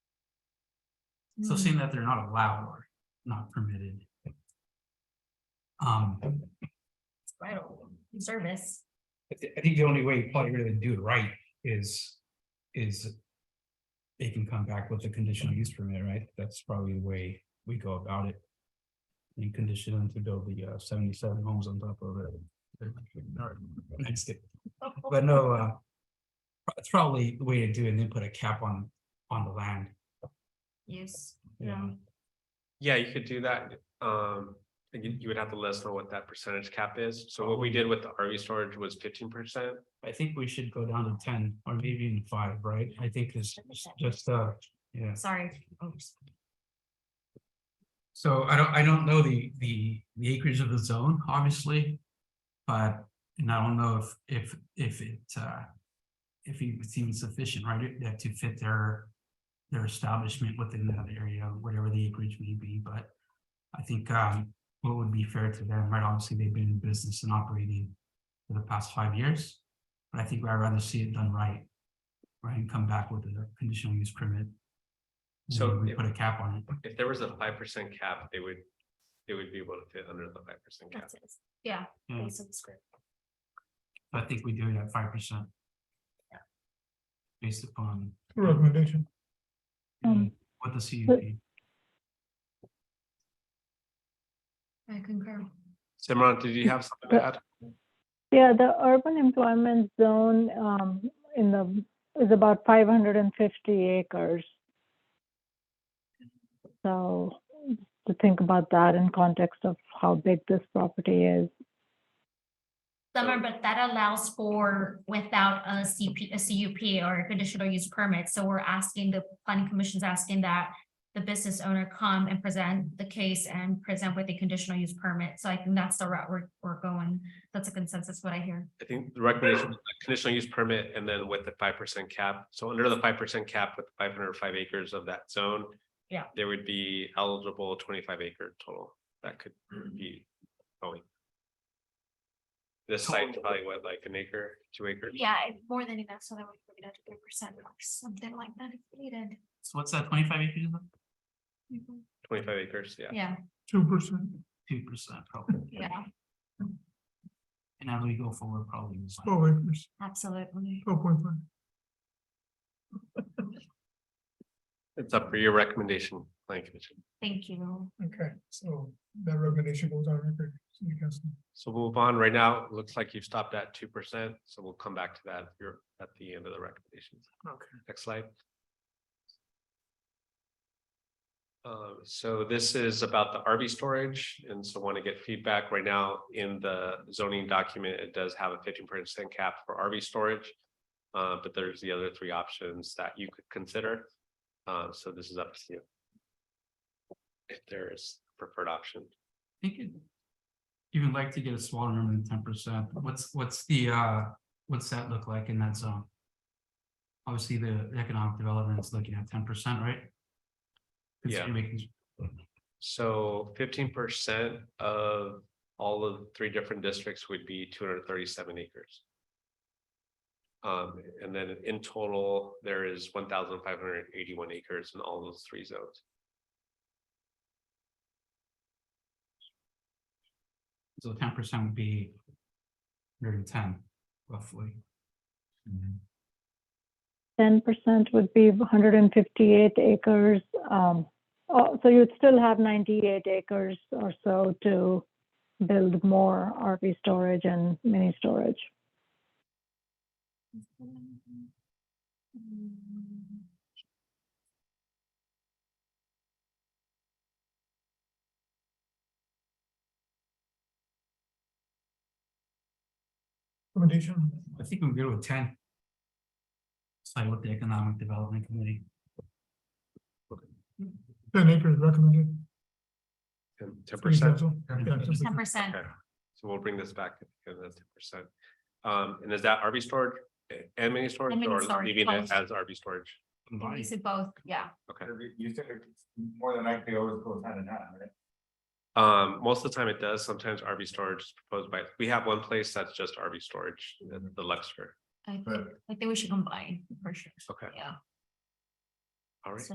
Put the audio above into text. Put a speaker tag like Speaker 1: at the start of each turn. Speaker 1: So
Speaker 2: Hmm,
Speaker 1: seeing that they're not allowed or not permitted. Um,
Speaker 2: I don't- Service,
Speaker 3: I thi- I think the only way you probably really do it right is, is they can come back with a conditional use permit, right? That's probably the way we go about it. And condition them to build the uh, seventy-seven homes on top of it. Next it. But no, uh, it's probably the way to do it and then put a cap on, on the land.
Speaker 2: use,
Speaker 3: Yeah.
Speaker 2: no,
Speaker 4: Yeah, you could do that. Um, and you, you would have to let us know what that percentage cap is. So what we did with the RV storage was fifteen percent.
Speaker 3: I think we should go down to ten or maybe even five, right? I think it's just, uh, yeah.
Speaker 2: sorry. Oh, Oops.
Speaker 3: So I don't, I don't know the, the, the acreage of the zone, obviously. But, and I don't know if, if, if it, uh. If it seems sufficient, right, it- that to fit their, their establishment within that area, whatever the acreage may be, but. I think, um, what would be fair to them, right, obviously, they've been in business and operating for the past five years. But I think I'd rather see it done right. Right, and come back with a conditional use permit. and
Speaker 4: So
Speaker 3: We
Speaker 4: if-
Speaker 3: put a cap on it.
Speaker 4: If there was a five percent cap, they would, they would be able to fit under the five percent cap.
Speaker 2: That's it. Yeah.
Speaker 3: Yeah.
Speaker 2: based on the script.
Speaker 3: I think we do it at five percent. Based upon
Speaker 5: Recommendation.
Speaker 6: Um,
Speaker 3: what the CUP,
Speaker 2: I concur.
Speaker 4: Simran, did you have something to add?
Speaker 6: Yeah, the urban employment zone um, in the, is about 550 acres. So to think about that in context of how big this property is.
Speaker 2: Summer, but that allows for without a CP, a CUP or a conditional use permit. So we're asking, the planning commission's asking that the business owner come and present the case and present with a conditional use permit. So I think that's the route we're, we're going. That's a consensus, what I hear.
Speaker 4: I think the recommendation, was a conditional use permit and then with the five percent cap. So under the five percent cap with five hundred five acres of that zone.
Speaker 2: Yeah.
Speaker 4: There would be eligible twenty-five acre total that could be going. This site's probably what, like an acre, two acres?
Speaker 2: Yeah, more than enough, so that we can get up to three percent or something like that if needed.
Speaker 3: so what's that, twenty-five acres,
Speaker 4: Twenty-five acres, yeah.
Speaker 2: Yeah,
Speaker 5: Two percent.
Speaker 3: two percent probably,
Speaker 2: yeah,
Speaker 3: and as we go forward, probably. it's like-
Speaker 5: Twelve acres,
Speaker 2: absolutely.
Speaker 5: twelve point five.
Speaker 4: It's up for your recommendation, planning commission.
Speaker 2: Thank you.
Speaker 5: Okay, so that recommendation goes on record. so you guys know.
Speaker 4: So we'll move on. Right now, it looks like you've stopped at two percent, so we'll come back to that here at the end of the recommendations.
Speaker 5: Okay.
Speaker 4: Next slide. Uh, so this is about the RV storage, and so want to get feedback right now in the zoning document. It does have a fifteen percent cap for RV storage. Uh, but there's the other three options that you could consider. Uh, so this is up to you. If there is preferred option.
Speaker 3: I think it- Even like to get a smaller number than ten percent, what's, what's the, uh, what's that look like in that zone? Obviously, the economic development is looking at ten percent, right?
Speaker 4: Yeah.
Speaker 3: Considering making-
Speaker 4: So fifteen percent of all of the three different districts would be two hundred thirty-seven acres. Um, and then in total, there is one thousand five hundred eighty-one acres in all those three zones.
Speaker 3: So ten percent would be hundred and ten roughly.
Speaker 6: 10% would be 158 acres. Um, oh, so you'd still have 98 acres or so to build more RV storage and mini storage.
Speaker 5: Recommendation,
Speaker 3: I think we're good with ten. Side with the Economic Development Committee.
Speaker 5: ten acres recommended.
Speaker 4: Ten
Speaker 5: Three
Speaker 4: percent.
Speaker 5: council. Yeah, yeah, just
Speaker 2: Ten
Speaker 5: like-
Speaker 2: percent,
Speaker 4: Okay, so we'll bring this back to the ten percent. Um, and is that RV storage eh, and mini storage
Speaker 2: And mini
Speaker 4: or
Speaker 2: storage,
Speaker 4: leaving it
Speaker 2: both.
Speaker 4: as RV storage?
Speaker 2: we said both, yeah.
Speaker 4: Okay.
Speaker 7: You said it more than likely always goes hand in hand, right?
Speaker 4: Um, most of the time it does. Sometimes RV storage is proposed by, we have one place that's just RV storage, the the Luxor.
Speaker 2: I think,
Speaker 7: But-
Speaker 2: I think we should combine for sure.
Speaker 4: Okay.
Speaker 2: Yeah.
Speaker 4: All right.